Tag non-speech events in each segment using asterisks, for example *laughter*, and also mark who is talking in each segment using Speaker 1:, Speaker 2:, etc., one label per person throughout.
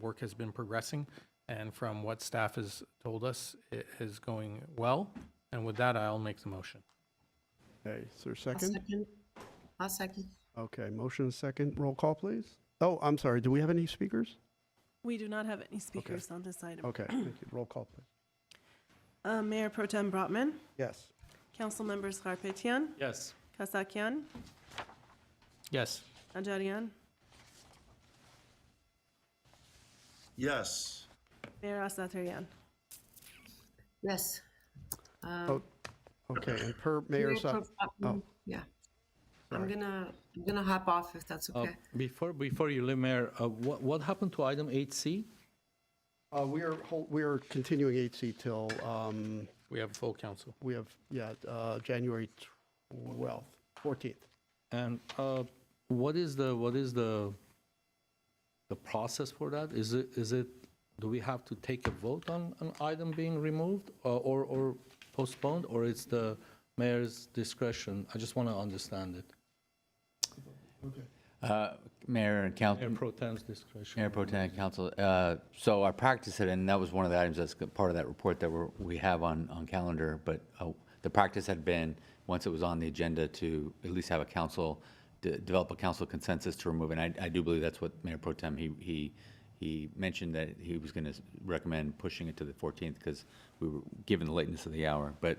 Speaker 1: work has been progressing, and from what staff has told us, it is going well. And with that, I'll make the motion.
Speaker 2: Okay, is there a
Speaker 3: I'll
Speaker 2: second?
Speaker 3: I'll second.
Speaker 2: Okay, motion second, roll call, please. Oh, I'm sorry, do we have any speakers?
Speaker 4: We do not have any speakers on this item.
Speaker 2: Okay, thank you, roll call, please.
Speaker 4: Uh, Mayor Pro Tem Brotman,
Speaker 2: Yes.
Speaker 4: Councilmember Scarpetian,
Speaker 1: Yes.
Speaker 4: Kasakian,
Speaker 1: Yes.
Speaker 4: Najarian,
Speaker 5: Yes.
Speaker 4: Mayor Asatryan.
Speaker 3: Yes.
Speaker 2: Oh, Okay, and per Mayor Sa- oh,
Speaker 3: Yeah. I'm gonna, I'm gonna hop off if that's
Speaker 6: Uh,
Speaker 3: okay.
Speaker 2: Oh.
Speaker 6: Before, before you leave, Mayor, uh, what, what happened to item 8C?
Speaker 2: uh, we are, hol- we are continuing 8C till, um,
Speaker 1: We have full council.
Speaker 2: we have, yeah, uh, January 12th, 14th.
Speaker 6: And uh, what is the, what is the, the process for that? Is it, is it, do we have to take a vote on an item being removed uh, or, or postponed? Or it's the mayor's discretion? I just want to understand it.
Speaker 7: Uh, Mayor and
Speaker 6: Mayor
Speaker 7: Council,
Speaker 6: Pro Tem's discretion.
Speaker 7: Mayor Pro Tem and Council, uh, so our practice, had- and that was one of the items that's part of that report that we're, we have on, on calendar, but uh, the practice had been, once it was on the agenda, to at least have a council, de- develop a council consensus to remove, and I, I do believe that's what Mayor Pro Tem, he, he, he mentioned that he was going to recommend pushing it to the 14th because we were, given the lateness of the hour, but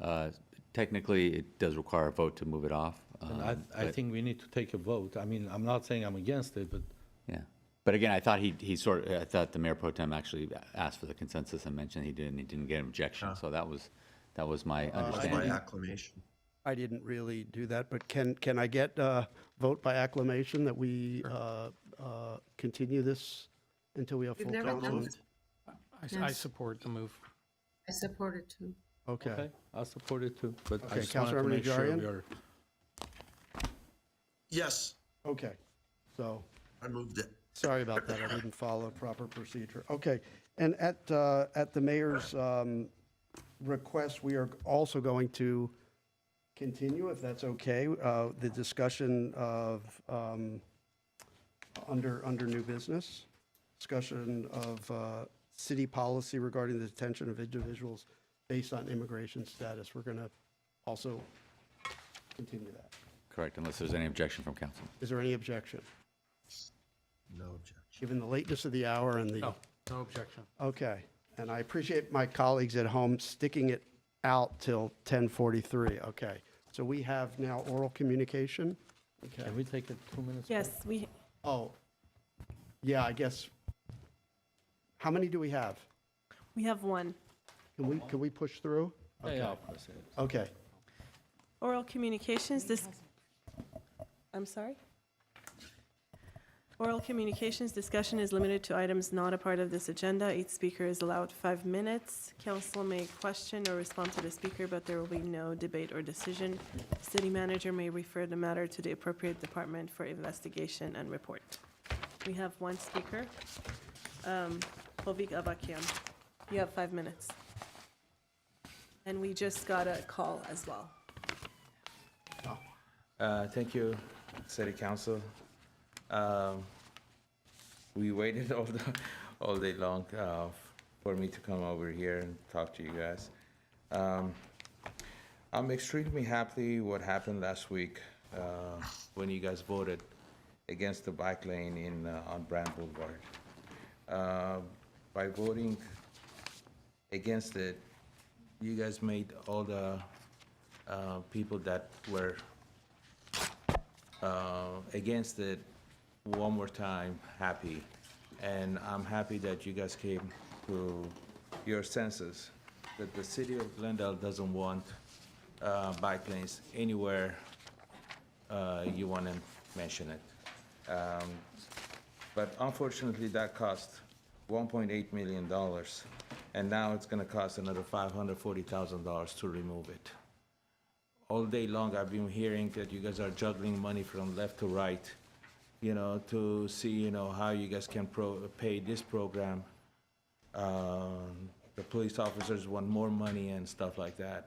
Speaker 7: uh, technically, it does require a vote to move it off.
Speaker 6: And I,
Speaker 7: um,
Speaker 6: I
Speaker 7: but-
Speaker 6: think we need to take a vote. I mean, I'm not saying I'm against it, but
Speaker 7: Yeah, but again, I thought he, he sort, of I thought the mayor pro tem actually asked for the consensus and mentioned he didn't, he didn't get an objection, so that was, that was my
Speaker 5: By
Speaker 7: understanding.
Speaker 5: acclamation.
Speaker 2: I didn't really do that, but can, can I get a vote by acclamation that we uh, uh, continue this until we have
Speaker 3: We've
Speaker 2: full
Speaker 3: never done
Speaker 2: council?
Speaker 3: this.
Speaker 1: I, I
Speaker 3: Yes.
Speaker 1: support the move.
Speaker 3: I support it too.
Speaker 2: Okay,
Speaker 6: okay, I support it too. But
Speaker 2: Okay,
Speaker 6: I just wanted to
Speaker 2: Councilmember
Speaker 6: make sure
Speaker 2: Najarian?
Speaker 6: we are.
Speaker 5: Yes,
Speaker 2: okay, so,
Speaker 5: I moved it.
Speaker 2: sorry about that, I didn't follow proper procedure. Okay, and at, uh, at the mayor's um, request, we are also going to continue, if that's okay, uh, the discussion of, um, under, under new business, discussion of uh, city policy regarding the detention of individuals based on immigration status. We're going to also continue that.
Speaker 7: Correct, unless there's any objection from council.
Speaker 2: Is there any objection?
Speaker 5: No objection.
Speaker 2: Given the lateness of the hour and the
Speaker 1: No, no objection.
Speaker 2: Okay, and I appreciate my colleagues at home sticking it out till 10:43, okay. So we have now oral communication? Okay,
Speaker 6: Can we take a two minutes?
Speaker 4: Yes, we,
Speaker 2: oh, yeah, I guess, how many do we have?
Speaker 4: we have one.
Speaker 2: Can we, can we push through?
Speaker 6: break? Yeah, yeah, of course, yeah.
Speaker 2: Okay,
Speaker 4: Oral communications, this, I'm sorry? Oral communications discussion is limited to items not a part of this agenda. Each speaker is allowed five minutes. Council may question or respond to the speaker, but there will be no debate or decision. City manager may refer the matter to the appropriate department for investigation and report. We have one speaker. Um, Hovik Avakian, you have five minutes. And we just got a call as well.
Speaker 8: Uh, Thank you, City Council. Um, We waited *laughs* all the, all day long uh, for me to come over here and talk to you guys. Um, I'm extremely happy what happened last week uh, when you guys voted against the bike lane in, uh, on Brand Boulevard. Uh, By voting against it, you guys made all the uh, people that were uh, against it one more time, happy. And I'm happy that you guys came to your senses, that the city of Glendale doesn't want uh, bike lanes anywhere uh, you want to mention it. Um, But unfortunately, that cost $1.8 million, and now it's going to cost another $540,000 to remove it all day long, I've been hearing that you guys are juggling money from left to right, you know, to see, you know, how you guys can pro, pay this program. Um, the police officers want more money and stuff like that.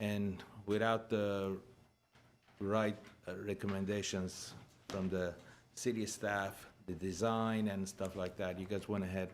Speaker 8: And without the right uh, recommendations from the city staff, the design and stuff like that. You guys went ahead